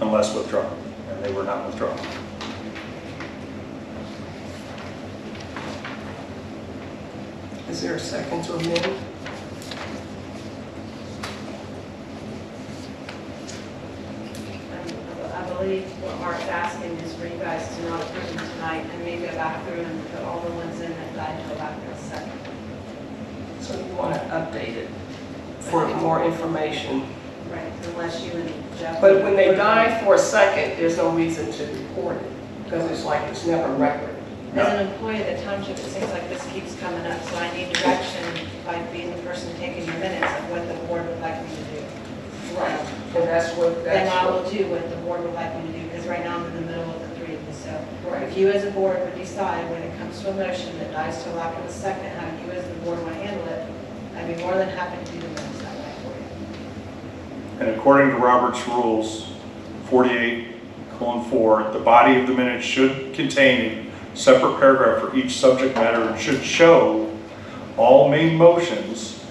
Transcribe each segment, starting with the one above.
unless withdrawn, and they were not withdrawn. Is there a second to amend? I believe what Mark's asking is for you guys to not approve them tonight and maybe go back through and put all the ones in that I know about in a second. So you want to update it for more information. Right. Unless you and Jeff. But when they die for a second, there's no reason to report it because it's like it's never a record. As an employee of the township, it seems like this keeps coming up, so I need direction by being the person taking your minutes of what the board would like me to do. And that's what, Then that's I will do what the board would like me to do, because right now I'm in the middle of the three of you, so. what, If right. you as a board would decide when it comes to a motion that dies to lack of a second, how you as the board want to handle it, I'd be more than happy to do the minutes that way for you. And according to Robert's rules, 48 colon 4, the body of the minutes should contain a separate paragraph for each subject matter and should show all main motions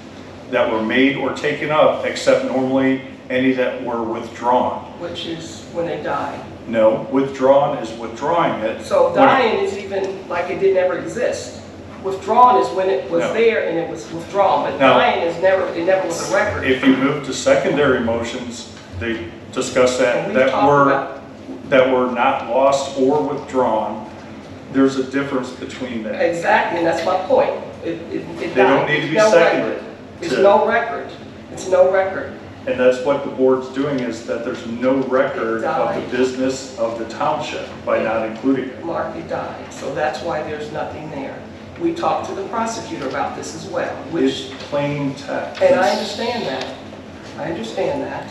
that were made or taken up, except normally any that were withdrawn. Which is when they die. No, withdrawn is withdrawing it. So When- dying is even like it didn't ever exist. Withdrawn is when it was No. there and it was withdrawn, but No. dying is never, it never was a record. If you move to secondary motions, they discuss And that, we that talked were. about- that were not lost or withdrawn, there's a difference between that. Exactly, and that's my point. It- it- it They don't died. need to be No seconded. record. It's to- no record. It's no record. And that's what the board's doing, is that there's no record of Right. the business of the township by not including it. Mark, he died, so that's why there's nothing there. We talked to the prosecutor about this as well, which, It's plain text. and I understand that. I understand that.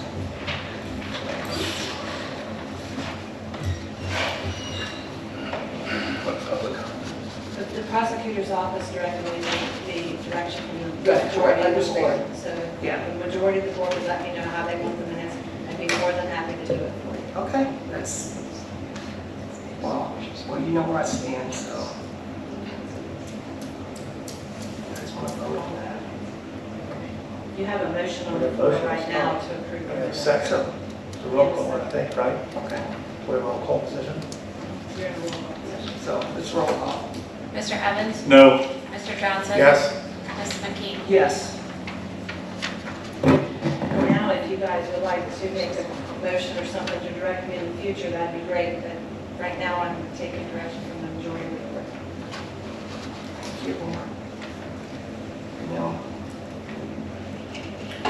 But the prosecutor's office directly made the direction from the Right, sure, I majority of the board. understand. So Yeah. the majority of the board would let me know how they want the minutes, I'd be more than happy to do it for you. Okay, that's, well, well, you know where I stand, so. I just want to vote on that. You have a motion on the floor right now to approve the minutes. So, It's a roll call, I think, right? okay, We're in roll call position? You're in a roll call session. so it's roll call. Mr. Evans? No, Mr. Johnson? Yes. Ms. McKee? Yes, Now, if you guys would like to make a motion or something to direct me in the future, that'd be great, but right now I'm taking direction from the majority of the board. thank you, Mark. No.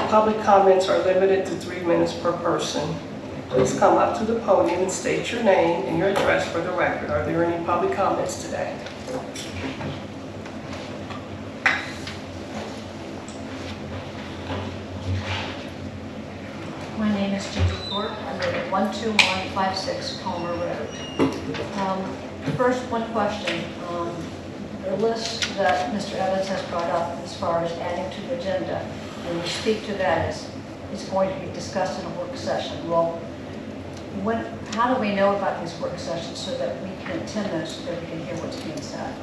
Public comments are limited to three minutes per person. Please come up to the podium and state your name and your address for the record. Are there any public comments today? My name is Judy Thorpe. I live at 12156 Palmer Road. Um, First, one question. Um, The list that Mr. Evans has brought up as far as adding to the agenda, and we speak to that as it's going to be discussed in a work session. Well, when, how do we know about these work sessions so that we can attend those, so that we can hear what's being said?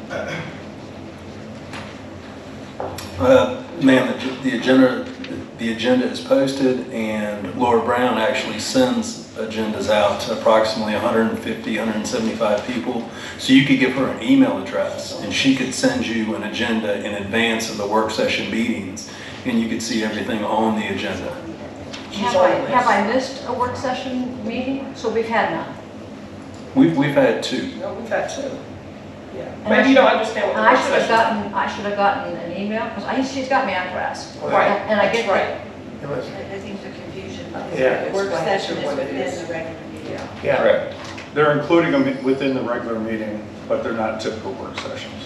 Uh, Ma'am, the- the agenda, the agenda is posted, and Laura Brown actually sends agendas out to approximately 150, 175 people. So you could give her an email address, and she could send you an agenda in advance of the work session meetings, and you could see everything on the agenda. She's Have on I, the have list. I missed a work session meeting? So we've had none. We've we've had two. No, we've had two. Yeah, And I maybe you don't should- understand what And the I work should have session is. gotten, I should have gotten an email, because I, she's got me on grass. Right, And I that's get right. that. It was, I I think the confusion is Yeah. that the work Explain to session what is it is. within the regular meeting. Yeah, yeah. they're including them within the regular meeting, but they're not typical work sessions.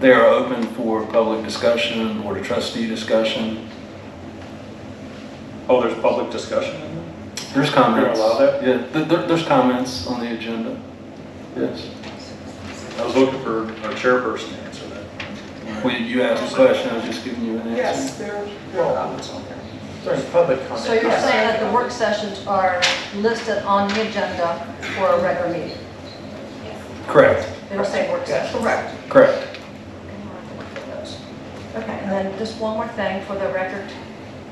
They are open for public discussion, board of trustee discussion. Oh, there's public discussion in there? There's comments. You're allowed that? Yeah, there- there- there's comments on the agenda. Yes. I was looking for our chairperson to answer that. Well, you asked a question, I was just giving you an answer. yes, there there are comments on there. During public comment. So you're yes. saying that the work sessions are listed on the agenda for a regular meeting? Correct, It'll say work session. Correct. correct. Okay, and then just one more thing for the record